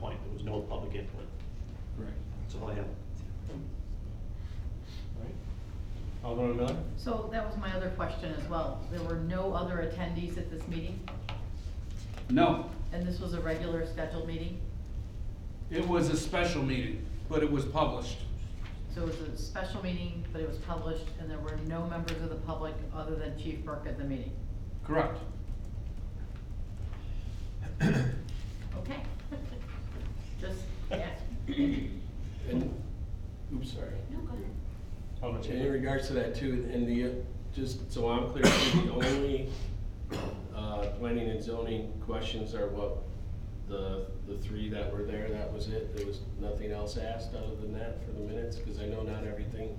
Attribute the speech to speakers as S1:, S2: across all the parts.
S1: was no public input.
S2: Correct.
S1: That's all I have.
S2: Right. Alderman Miller?
S3: So that was my other question as well. There were no other attendees at this meeting,
S4: No,
S3: and this was a regular scheduled meeting?
S4: it was a special meeting, but it was published.
S3: So it was a special meeting, but it was published, and there were no members of the public other than Chief Burke at the meeting?
S4: Correct.
S3: Okay. Just, yeah.
S5: And, oops, sorry.
S3: No, go ahead.
S2: Alderman
S5: And in
S2: Chandler?
S5: regards to that too, and the, uh, just so I'm clear, the only, uh, planning and zoning questions are what, the, the three that were there, that was it? There was nothing else asked other than that for the minutes? Because I know not everything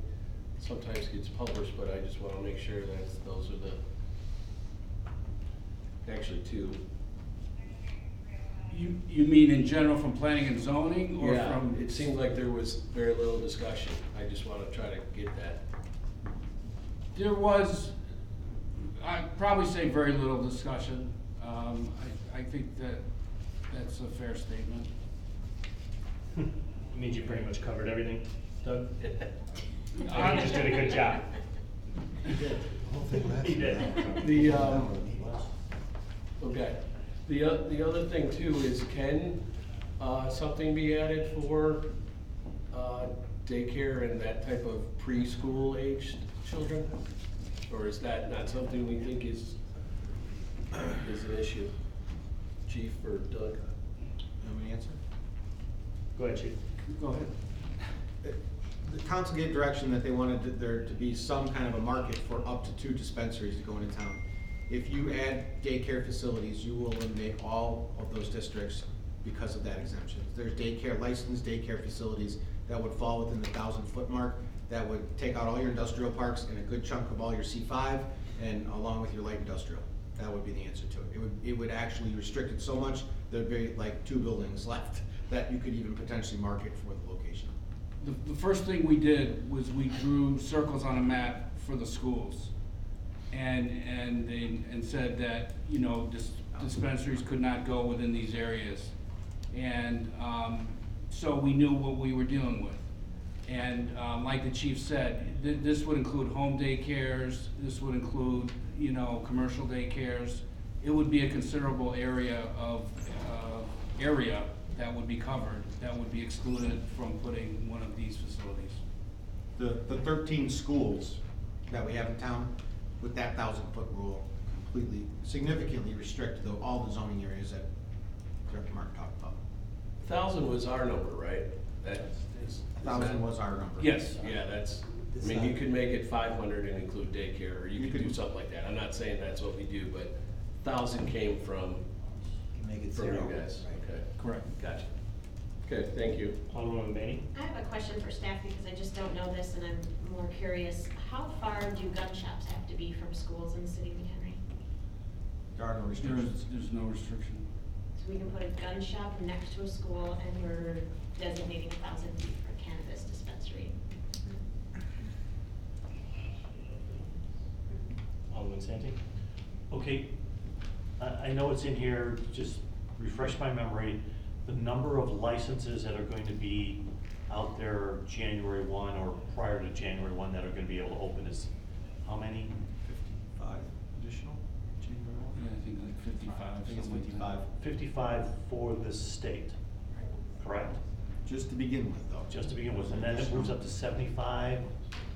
S5: sometimes gets published, but I just wanna make sure that those are the, actually two.
S4: You, you mean in general from planning and zoning or
S5: Yeah,
S4: from?
S5: it seemed like there was very little discussion. I just wanna try to get that.
S4: There was, I'd probably say very little discussion. Um, I, I think that, that's a fair statement.
S1: Means you pretty much covered everything, Doug.
S4: Uh,
S1: You just did a good job. He did.
S5: The, um, Okay. The, o- the other thing too is can, uh, something be added for, uh, daycare and that type of preschool aged children? Or is that not something we think is, is an issue? Chief or Doug?
S6: Have an answer?
S1: Go ahead, chief.
S4: Go ahead.
S6: The council gave direction that they wanted to- there to be some kind of a market for up to two dispensaries to go into town. If you add daycare facilities, you will eliminate all of those districts because of that exemption. There's daycare, licensed daycare facilities that would fall within the thousand foot mark, that would take out all your industrial parks and a good chunk of all your C five, and along with your light industrial. That would be the answer to it. It would, it would actually restrict it so much, there'd be like two buildings left that you could even potentially market for the location.
S4: The, the first thing we did was we drew circles on a map for the schools. And, and, they- and said that, you know, dis- dispensaries could not go within these areas. And, um, so we knew what we were dealing with. And, um, like the chief said, th- this would include home daycares, this would include, you know, commercial daycares. It would be a considerable area of, uh, area that would be covered, that would be excluded from putting one of these facilities.
S6: the, the thirteen schools that we have in town, with that thousand foot rule, completely, significantly restrict the, all the zoning areas that Director Mark talked about.
S5: Thousand was our number, right? That is.
S6: A thousand was our number.
S4: Yes.
S5: Yeah, that's, I mean, you could make it five hundred and include daycare, or you could do something like that. I'm not saying that's what we do, but thousand came from,
S7: Make it
S5: from
S7: zero.
S5: you guys,
S7: right?
S5: okay?
S4: Correct.
S5: Gotcha. Okay, thank you.
S1: Alderman Benny?
S8: I have a question for staff because I just don't know this and I'm more curious. How far do gun shops have to be from schools in the city of McHenry?
S6: There are no
S4: There
S6: restrictions.
S4: is, there's no restriction.
S8: So we can put a gun shop next to a school and we're designating a thousand feet for cannabis dispensary.
S1: Alderman Santi? Okay, I, I know it's in here, just refresh my memory. The number of licenses that are going to be out there January one or prior to January one that are gonna be able to open is, how many?
S6: Fifty-five additional,
S4: Yeah, I think like fifty-five,
S6: I think it's
S4: something like that.
S6: fifty-five,
S1: Fifty-five for the state, correct?
S6: just to begin with, though.
S1: Just to begin with, and then it moves up to seventy-five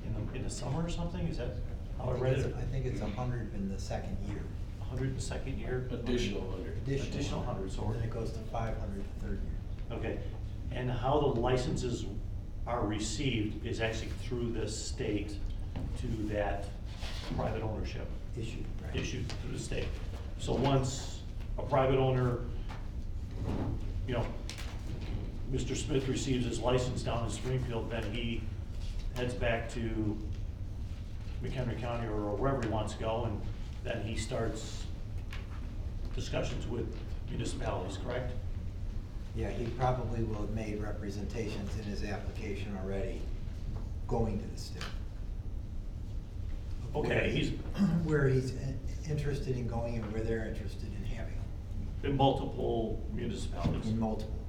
S1: in the, in the summer or something, is that
S7: I
S1: how I
S7: think
S1: read
S7: it's-
S1: it?
S7: I think it's a hundred in the second year.
S1: Hundred and second year?
S5: Additional hundred.
S1: Additional 100, so we're-
S7: Then it goes to five hundred the third year.
S1: Okay, and how the licenses are received is actually through the state to that private ownership,
S7: Issued, right?
S1: issued through the state. So once a private owner, you know, Mr. Smith receives his license down in Springfield, then he heads back to McHenry County or wherever he wants to go, and then he starts discussions with municipalities, correct?
S7: Yeah, he probably will have made representations in his application already going to the state. Of
S1: Okay,
S7: where he-
S1: he's-
S7: Where he's in- interested in going and where they're interested in having him,
S1: in multiple municipalities.
S7: in multiple.